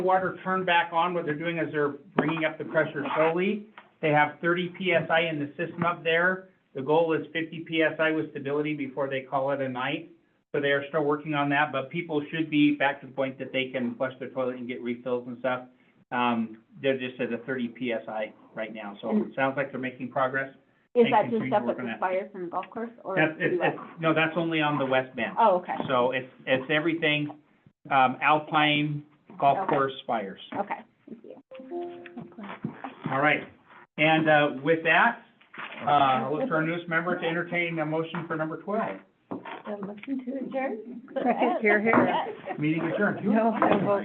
water turned back on, what they're doing is they're bringing up the pressure slowly. They have thirty PSI in the system up there. The goal is fifty PSI with stability before they call it a night. So they are still working on that, but people should be back to the point that they can flush their toilet and get refills and stuff. Um, they're just at a thirty PSI right now, so it sounds like they're making progress. Is And that just continue to stuff work that on that. expires from the golf course or? That's, it's, U.S.? it's- no, that's only on the west bend. Oh, okay, So it's, it's everything, um, Alpine, golf Okay. course, spires. okay, thank you. All right. And, uh, with that, uh, I'll look for our newest member to entertain a motion for number twelve. Motion to adjourn? Second, hear, hear. Meeting adjourned. No, no vote.